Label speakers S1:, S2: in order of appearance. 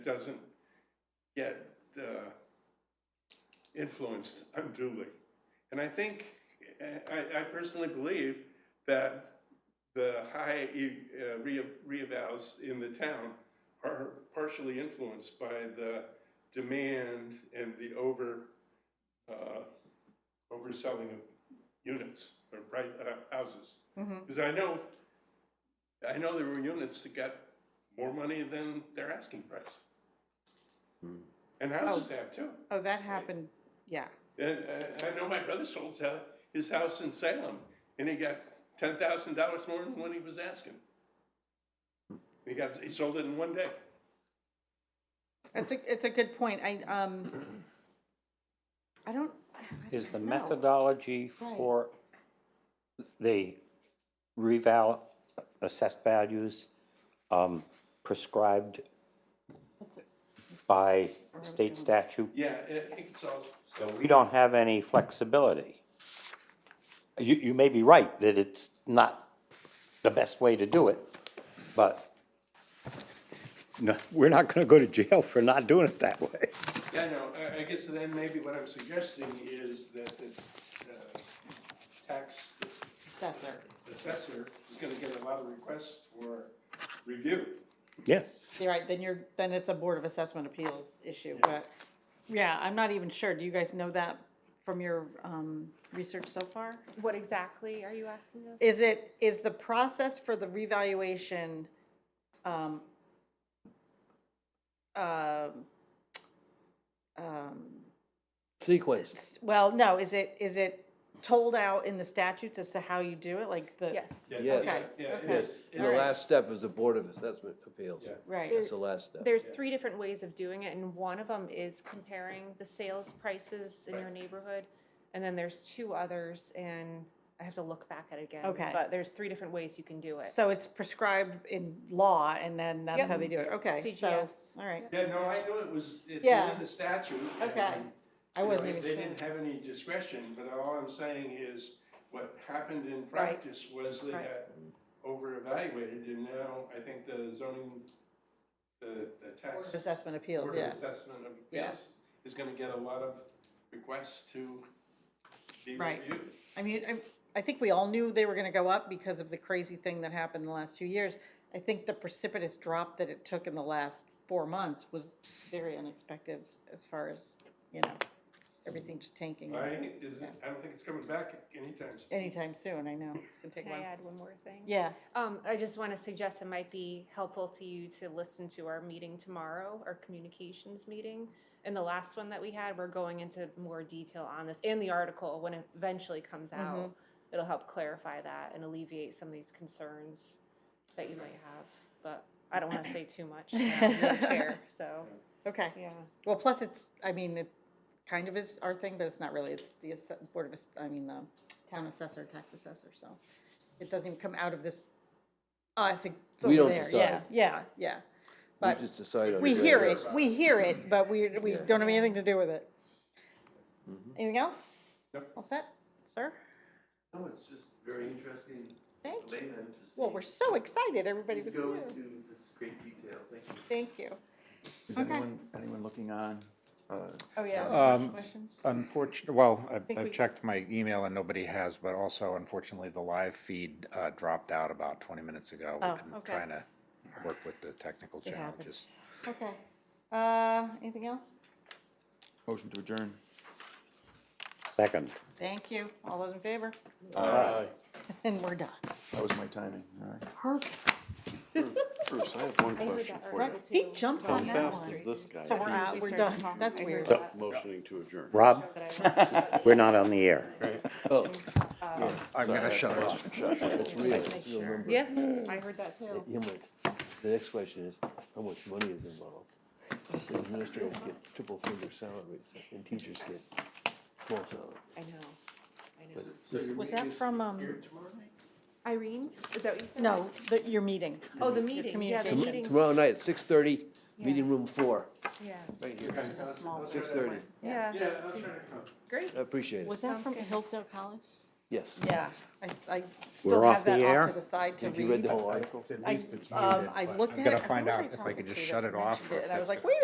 S1: doesn't get uh, influenced unduly. And I think, I, I personally believe that the high e- uh, re- reavows in the town are partially influenced by the demand and the over, uh, overselling of units or pri uh, houses.
S2: Mhm.
S1: Because I know, I know there were units that got more money than their asking price. Hmm. And houses have too.
S2: Oh, that happened, yeah.
S1: And, uh, I know my brother sold his hou- his house in Salem, and he got ten thousand dollars more than what he was asking. He got, he sold it in one day.
S2: It's a, it's a good point. I, um, I don't. I
S3: Is the
S2: don't know.
S3: methodology
S2: Right.
S3: for the reval assessed values um, prescribed by state statute?
S1: Yeah, I think it's all.
S3: So we don't have any flexibility. You, you may be right that it's not the best way to do it, but no, we're not gonna go to jail for not doing it that way.
S1: Yeah, no, I, I guess then maybe what I'm suggesting is that the, uh, tax
S2: Assessor.
S1: assessor is gonna get a lot of requests for review.
S3: Yes.
S2: You're right, then you're, then it's a Board of Assessment Appeals issue, but, yeah, I'm not even sure. Do you guys know that from your, um, research so far?
S4: What exactly are you asking us?
S2: Is it, is the process for the revaluation, um, um, um,
S5: sequence.
S2: s- well, no, is it, is it told out in the statutes as to how you do it, like the?
S4: Yes.
S5: Yes.
S2: Okay,
S1: Yeah,
S2: okay.
S5: Yes, and the
S2: Alright.
S5: last step is the Board of Assessment Appeals.
S1: Yeah.
S2: Right.
S5: That's the last step.
S4: There's three different ways of doing it, and one of them is comparing the sales prices in your neighborhood. And then there's two others, and I have to look back at it again.
S2: Okay.
S4: But there's three different ways you can do it.
S2: So it's prescribed in law, and then that's
S4: Yep.
S2: how they do it, okay, so,
S4: CGS.
S2: all right,
S1: Yeah, no, I knew it was, it's
S2: Yeah.
S1: in the statute. and
S2: Okay. I
S1: You know,
S2: wasn't even
S1: They
S2: sure.
S1: didn't have any discretion, but all I'm saying is, what happened in
S2: Right.
S1: practice was they
S2: Right.
S1: got over-evaluated, and now I think the zoning, the, the
S2: Board
S1: tax.
S2: of Assessment Appeals,
S1: Board of
S2: yeah,
S1: Assessment of
S2: Yeah.
S1: Appeals is gonna get a lot of requests to be
S2: Right.
S1: reviewed.
S2: I mean, I, I think we all knew they were gonna go up because of the crazy thing that happened the last two years. I think the precipitous drop that it took in the last four months was very unexpected as far as, you know, everything just tanking
S1: I, is, I don't think it's coming back anytime soon.
S2: anytime soon, I know, it's gonna take a
S4: Can I
S2: while.
S4: add one more thing?
S2: Yeah,
S4: Um, I just want to suggest it might be helpful to you to listen to our meeting tomorrow, our communications meeting. And the last one that we had, we're going into more detail on this and the article when it eventually comes
S2: Mm-hmm.
S4: out. It'll help clarify that and alleviate some of these concerns that you might have. But I don't want to say too much. now, I'm the Chair, so,
S2: okay.
S4: yeah.
S2: Well, plus it's, I mean, it kind of is our thing, but it's not really, it's the asse- Board of, Ass- I mean, the town assessor, tax assessor, so it doesn't even come out of this, us, it's
S5: We don't
S2: over there, yeah,
S5: decide.
S2: yeah, yeah.
S5: We
S2: But
S5: just decide on.
S2: we
S5: the-
S2: hear it, we hear it, but we, we
S5: Yeah. Mm-hmm.
S2: don't have anything to do with it. Anything else?
S1: Nope.
S2: All set, sir?
S6: No, it's just very interesting.
S2: Thank you.
S6: Layman to see.
S2: Well, we're so excited, everybody
S6: you
S2: was
S6: Go
S2: here.
S6: into this great detail, thank you.
S2: Thank you.
S7: Is
S2: Okay.
S7: anyone, anyone looking on? Uh,
S2: Oh, yeah.
S8: Um,
S2: Questions?
S8: Unfortunately, well, I-
S2: think we-
S8: I checked my email and nobody has, but also unfortunately, the live feed uh, dropped out about 20 minutes ago.
S2: Oh,
S8: We've been
S2: okay.
S8: trying to work with the technical
S2: It happens.
S8: challenges.
S2: Okay. Uh, anything else?
S7: Motion to adjourn.
S3: Second.
S2: Thank you. All those in favor? And we're done.
S7: That was my timing, all right.
S2: Perfect.
S9: Bruce, I have one
S4: I heard
S9: question
S4: that
S9: for you.
S4: already,
S2: He
S4: too.
S2: jumps on
S9: How
S2: that
S9: fast
S2: one.
S9: is this guy?
S2: So we're
S4: As soon as
S2: out,
S4: we
S2: we're
S4: started
S2: done.
S4: talking,
S2: That's
S4: I heard
S2: weird.
S4: that.
S9: Motioning to adjourn.
S3: Rob,
S4: But I wanted to-
S3: we're not on the air.
S10: Oh,
S8: I'm going to shut it off.
S4: Yeah, I heard that too.
S10: Yeah, but the next question is, how much money is involved? The administrators get triple finger salaries, and teachers get small salaries.
S4: I know, I know.
S2: Was that from, um,
S4: Irene, is that what you said?
S2: no, the, your meeting?
S4: Oh, the meeting, yeah, the
S2: communication.
S4: meeting's,
S10: Tomorrow night, six thirty,
S4: Yeah.
S10: meeting room four,
S4: yeah,
S2: Small.
S10: six thirty,
S4: yeah,
S1: Yeah, I'll try to come.
S4: great.
S10: I appreciate it.
S2: Was that
S4: Sounds
S2: from
S4: good.
S2: Hillsdale College?
S5: Yes.
S2: Yeah, I, s- I
S3: We're
S2: still
S3: off
S2: have that
S3: the
S2: off
S3: air?
S2: to the side to
S5: If you read
S2: read.
S5: the whole
S2: I,
S5: article.
S2: um, I looked at it. I
S8: I've got to
S2: thought
S8: find
S2: it was really
S8: out if I could just
S2: complicated.
S8: shut it
S2: I
S8: off.
S2: mentioned
S8: or
S2: it,
S8: if
S2: And I was
S8: that's
S2: like,
S8: good.
S2: wait